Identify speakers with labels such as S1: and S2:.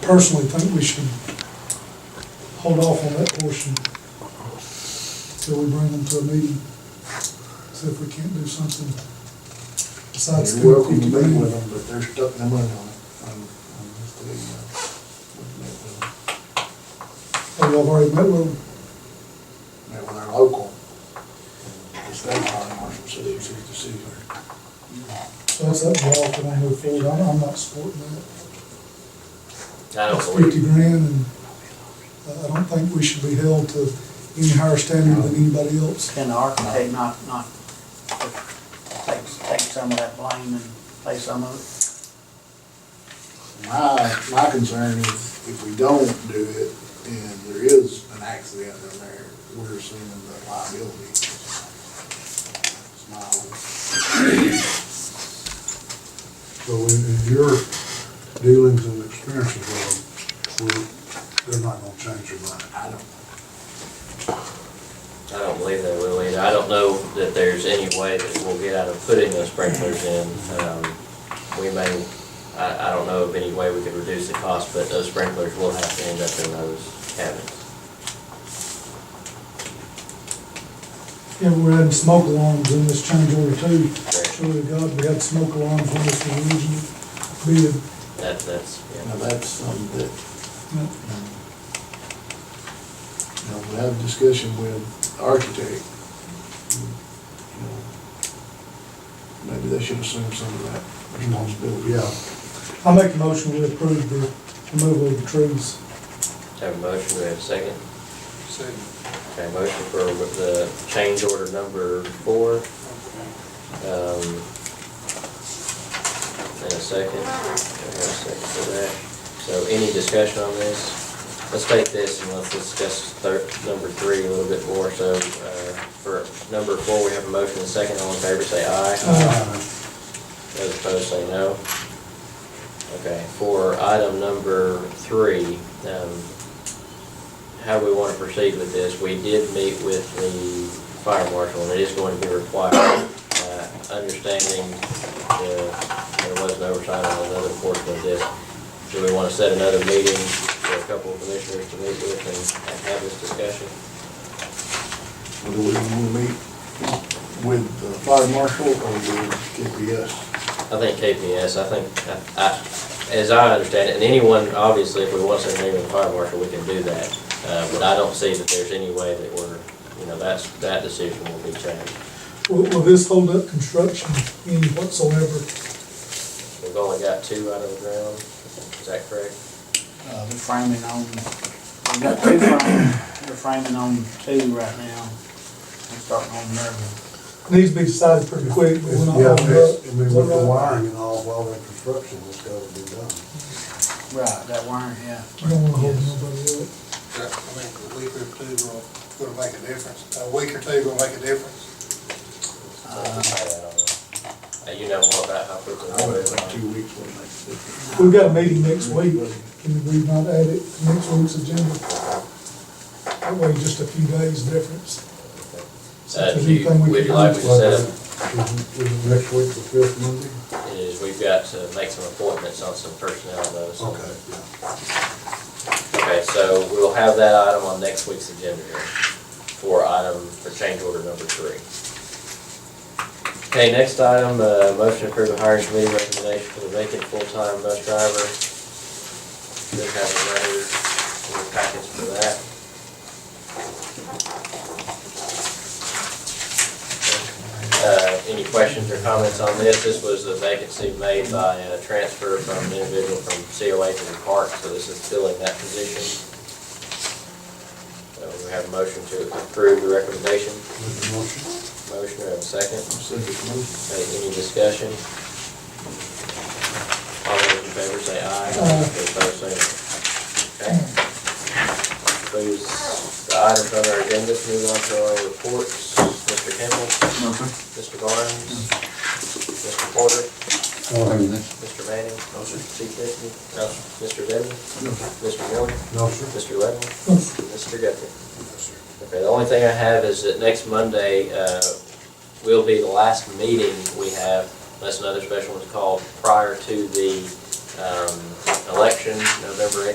S1: personally think we should hold off on that portion till we bring them to a meeting, see if we can't do something besides.
S2: You're welcome to
S1: keep
S2: meet
S1: it
S2: with them, but they're stuck their money on it. I'm, I'm just letting you
S1: Oh,
S2: uh, know. We've met with them.
S1: y'all already met with them?
S2: Met with our local, and the state fire marshal, city, city, city.
S1: So that's up to y'all if we want to move forward. I'm, I'm not supporting that.
S3: I don't
S1: It's
S3: believe
S1: Fifty
S3: you.
S1: grand and uh, I- I don't think we should be held to any higher standard than anybody else.
S4: Can the architect not, not take, take some of that blame and pay some of it?
S2: My, my concern is if we don't do it and there is an accident in there, we're assuming the liability. It's my own.
S5: So in, in your dealings and experiences with them, we're, they're not gonna change their mind.
S2: I don't,
S3: I don't believe they will either. I don't know that there's any way that we'll get out of putting those sprinklers in. Um, We may, I, I don't know of any way we could reduce the cost, but those sprinklers will have to end up in those cabins.
S1: Yeah, we're adding smoke alarms in this change order too.
S3: Correct.
S1: Surely to God, we had smoke alarms when this was originally bid.
S3: That, that's,
S2: now
S3: yeah.
S2: that's something that
S1: you know,
S2: Now, we have a discussion with the architect. You know, Maybe they should assume some of that responsibility.
S5: Yeah,
S1: I make a motion we approve the removal of the trees.
S3: Have a motion, we have a second? Second. Okay, motion for the change order number four. Um, And a second. We have a second for that. So any discussion on this? Let's take this and let's discuss thir- number three a little bit more. So uh, for number four, we have a motion and a second. All in favor, say aye.
S1: Aye.
S3: Those opposed say no. Okay, for item number three, um, how we want to proceed with this, we did meet with the fire marshal, and it is going to be required, uh, understanding the- there was an oversight on another portion of this. Do we want to set another meeting for a couple of commissioners to meet with and- and have this discussion?
S2: Or Do we want to meet with the fire marshal or with KPS?
S3: I think KPS, I think, I, I- as I understand it, and anyone, obviously, if we want to send anyone to the fire marshal, we can do that. Uh, But I don't see that there's any way that we're, you know, that's, that decision will be changed.
S1: Will, will this hold up construction any whatsoever?
S3: We've only got two out of the ground, is that correct?
S4: Uh, the framing on, we got two framing, we're framing on two right now. We're starting on another one.
S1: Needs to be decided pretty quick, but we're not
S5: yeah,
S1: holding up.
S5: I mean, with
S1: Is that
S5: the
S1: right?
S5: wiring and all, while that construction has gotta be done.
S4: Right, that wiring, yeah.
S1: We don't wanna hold
S4: Yes.
S1: nobody up.
S6: I think a week or two will, will make a difference. A week or two will make a difference.
S3: Uh, You know more about how quickly.
S2: Uh-huh. I would think two weeks would make a difference.
S1: We've got a meeting next week, can we not add it to next week's agenda? That way, just a few days difference.
S3: Uh, do you- Would you like me to set
S5: Is
S3: up
S5: it- is it next week, the fifth Monday?
S3: is we've got to make some appointments on some personnel though. so-
S5: Okay, yeah.
S3: Okay, so we'll have that item on next week's agenda here for item, for change order number three. Okay, next item, uh, motion to approve the hiring committee recommendation for the vacant full-time bus driver. Should have a letter in the package for that. Uh, any questions or comments on this? This was a vacancy made by a transfer from an individual from COA to the park, so this is filling that position. So we have a motion to approve the recommendation.
S5: Make the motion.
S3: Motion, we have a second.
S2: I'm sick of moving.
S3: Okay, any discussion? All those in favor say aye.
S1: Aye.
S3: Those opposed say no. Okay. Please, the items on our agenda, move on to our reports. Mr. Campbell? Mr. Barnes? Mr. Porter? Mr. Manning? No, sir. Chief Deputy? No. Mr. Denton? Mr. Miller?
S5: No, sir.
S3: Mr. Levin?
S1: No,
S3: Mr. Guthrie? Okay, the only thing I have is that next Monday, uh, will be the last meeting we have, unless another special one's called, prior to the, um, election, November